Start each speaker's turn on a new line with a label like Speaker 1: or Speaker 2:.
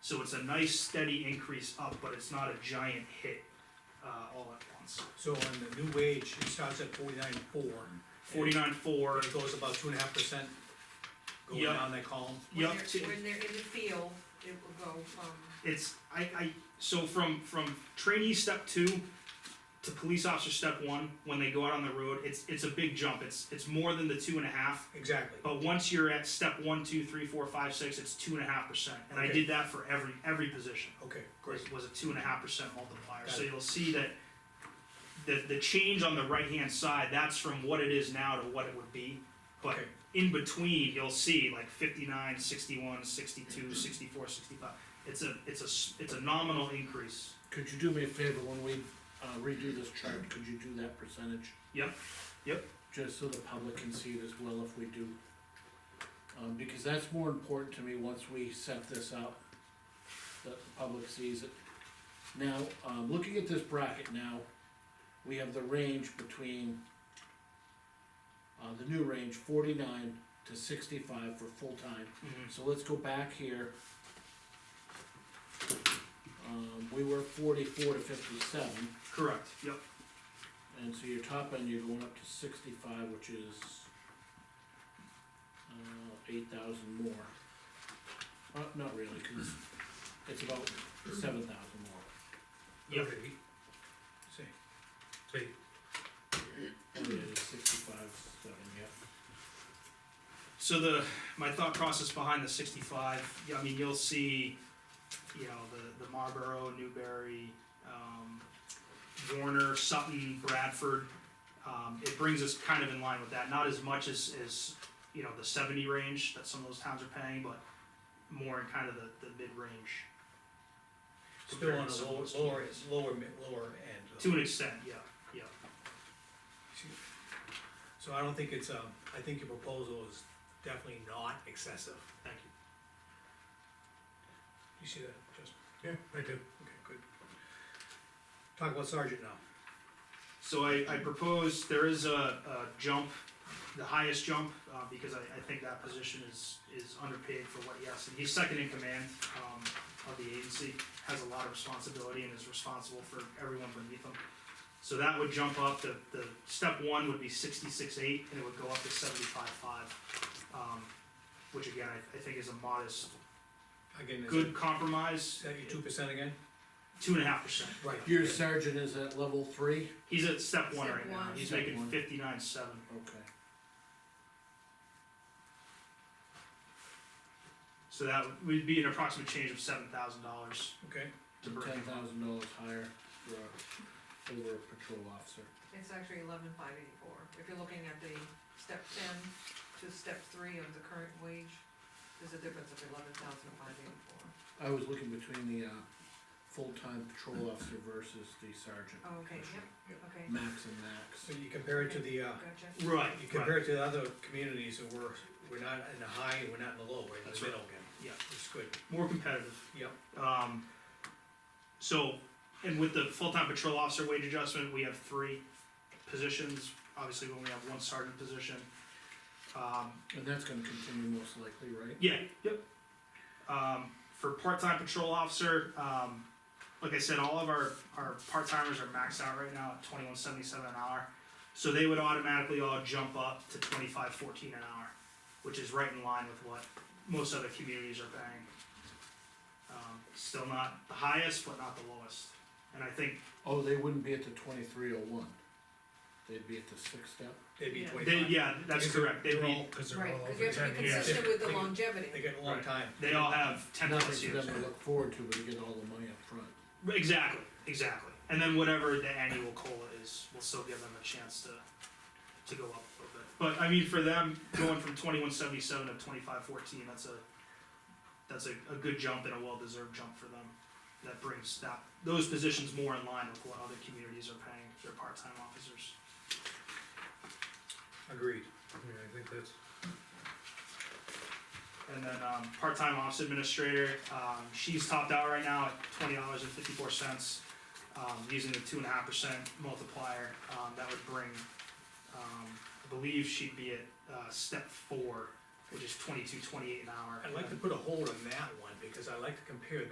Speaker 1: So it's a nice steady increase up, but it's not a giant hit, uh, all at once.
Speaker 2: So on the new wage, it starts at forty-nine four,
Speaker 1: Forty-nine four,
Speaker 2: but it goes about two and a half percent going
Speaker 1: Yeah.
Speaker 2: down that column.
Speaker 1: yep,
Speaker 3: When they're, when they're in the field, it will go from,
Speaker 1: it's, I, I, so from, from trainee step two to police officer step one, when they go out on the road, it's, it's a big jump, it's, it's more than the two and a half.
Speaker 2: Exactly.
Speaker 1: But once you're at step one, two, three, four, five, six, it's two and a half percent, and I
Speaker 2: Okay.
Speaker 1: did that for every, every position.
Speaker 2: Okay, great.
Speaker 1: was, was a two and a half percent multiplier,
Speaker 2: Got
Speaker 1: so
Speaker 2: it.
Speaker 1: you'll see that the, the change on the right-hand side, that's from what it is now to what it would be. But
Speaker 2: Okay.
Speaker 1: in between, you'll see like fifty-nine, sixty-one, sixty-two, sixty-four, sixty-five. It's a, it's a, s- it's a nominal increase.
Speaker 4: Could you do me a favor, when we uh, redo this chart, could you do that percentage?
Speaker 1: Yep, yep.
Speaker 4: Just so the public can see it as well if we do. Um, because that's more important to me once we set this up, that the public sees it. Now, um, looking at this bracket now, we have the range between, uh, the new range, forty-nine to sixty-five for full-time.
Speaker 2: Mm-hmm.
Speaker 4: So let's go back here. Um, we were forty-four to fifty-seven,
Speaker 1: Correct, yep,
Speaker 4: and so your top end, you're going up to sixty-five, which is uh, eight thousand more. Uh, not really, cause it's about seven thousand more.
Speaker 1: yep.
Speaker 2: Okay. See,
Speaker 4: Oh, yeah, it's sixty-five, seven, yeah.
Speaker 1: So the, my thought process behind the sixty-five, yeah, I mean, you'll see, you know, the, the Marlboro, Newberry, um, Warner, Sutton, Bradford. Um, it brings us kind of in line with that, not as much as, as, you know, the seventy range that some of those towns are paying, but more in kind of the, the mid-range.
Speaker 2: still
Speaker 1: compared
Speaker 2: on
Speaker 1: to
Speaker 2: the
Speaker 1: some of
Speaker 2: lower,
Speaker 1: those
Speaker 2: lower,
Speaker 1: communities.
Speaker 2: lower, mi- lower end. of-
Speaker 1: To an extent, yeah, yeah.
Speaker 2: So I don't think it's, um, I think your proposal is definitely not excessive.
Speaker 1: Thank
Speaker 2: You see that, Justin? Yeah, I do. Okay, good. Talk about sergeant now.
Speaker 1: So I, I propose, there is a, a jump, the highest jump, uh, because I, I think that position is, is underpaid for what he has. He's second in command, um, of the agency, has a lot of responsibility and is responsible for everyone beneath him. So that would jump up, the, the step one would be sixty-six eight, and it would go up to seventy-five five. Um, which again, I, I think is a modest,
Speaker 2: Again, is
Speaker 1: good
Speaker 2: that- is
Speaker 1: compromise,
Speaker 2: that your two percent again?
Speaker 1: two and a half percent.
Speaker 2: Right.
Speaker 4: Your sergeant is at level three?
Speaker 1: He's at step one
Speaker 3: Step
Speaker 1: right now,
Speaker 3: one.
Speaker 1: he's
Speaker 4: Step
Speaker 1: making
Speaker 4: one.
Speaker 1: fifty-nine seven.
Speaker 4: Okay.
Speaker 1: So that would be an approximate change of seven thousand dollars
Speaker 2: Okay,
Speaker 1: to
Speaker 4: And
Speaker 1: bring
Speaker 4: ten
Speaker 1: him up.
Speaker 4: thousand dollars higher for a, for a patrol officer.
Speaker 3: it's actually eleven five eighty-four. If you're looking at the step ten to step three of the current wage, there's a difference of eleven thousand five eighty-four.
Speaker 4: I was looking between the, uh, full-time patrol officer versus the sergeant.
Speaker 3: Oh, okay,
Speaker 4: position.
Speaker 3: yep, okay,
Speaker 4: Max and max.
Speaker 2: so you compare it to the, uh,
Speaker 3: gotcha.
Speaker 1: Right, right,
Speaker 2: you compare it to the other communities, and we're, we're not in the high, and we're not in the low, we're in
Speaker 1: That's
Speaker 2: the
Speaker 1: right.
Speaker 2: middle again.
Speaker 1: Yeah.
Speaker 2: It's good,
Speaker 1: more competitive.
Speaker 2: yep,
Speaker 1: Um, so, and with the full-time patrol officer wage adjustment, we have three positions. Obviously, we only have one sergeant position. Um,
Speaker 4: And that's gonna continue most likely, right?
Speaker 1: Yeah, yep. Um, for part-time patrol officer, um, like I said, all of our, our part-timers are maxed out right now at twenty-one seventy-seven an hour. So they would automatically all jump up to twenty-five fourteen an hour, which is right in line with what most other communities are paying. Um, still not the highest, but not the lowest. And I think
Speaker 4: Oh, they wouldn't be at the twenty-three oh one. They'd be at the sixth step.
Speaker 2: they'd be
Speaker 3: Yeah.
Speaker 1: they,
Speaker 2: twenty-five.
Speaker 1: yeah, that's correct. They'd be,
Speaker 5: Cause they're
Speaker 3: Right,
Speaker 5: all
Speaker 3: because you
Speaker 5: over
Speaker 3: have to
Speaker 5: ten
Speaker 3: be
Speaker 1: years.
Speaker 3: consistent with the
Speaker 2: They-
Speaker 3: longevity.
Speaker 2: They got a long
Speaker 1: Right.
Speaker 2: time.
Speaker 1: they all have ten
Speaker 4: Nothing
Speaker 1: plus
Speaker 4: for
Speaker 1: years.
Speaker 4: them to look forward to, but you get all the money up front.
Speaker 1: Exactly, exactly. And then whatever the annual cola is, we'll still give them a chance to to go up a little bit. But I mean, for them, going from twenty one seventy seven to twenty five fourteen, that's a that's a, a good jump and a well deserved jump for them. That brings that those positions more in line with what other communities are paying their part time officers.
Speaker 2: Agreed.
Speaker 5: Yeah, I think that's,
Speaker 1: And then um, part time office administrator, um, she's topped out right now at twenty dollars and fifty four cents. Um, using the two and a half percent multiplier, um, that would bring, um, I believe she'd be at uh, step four, which is twenty two twenty eight an hour.
Speaker 2: I'd like to put a hold on that one, because I like to compare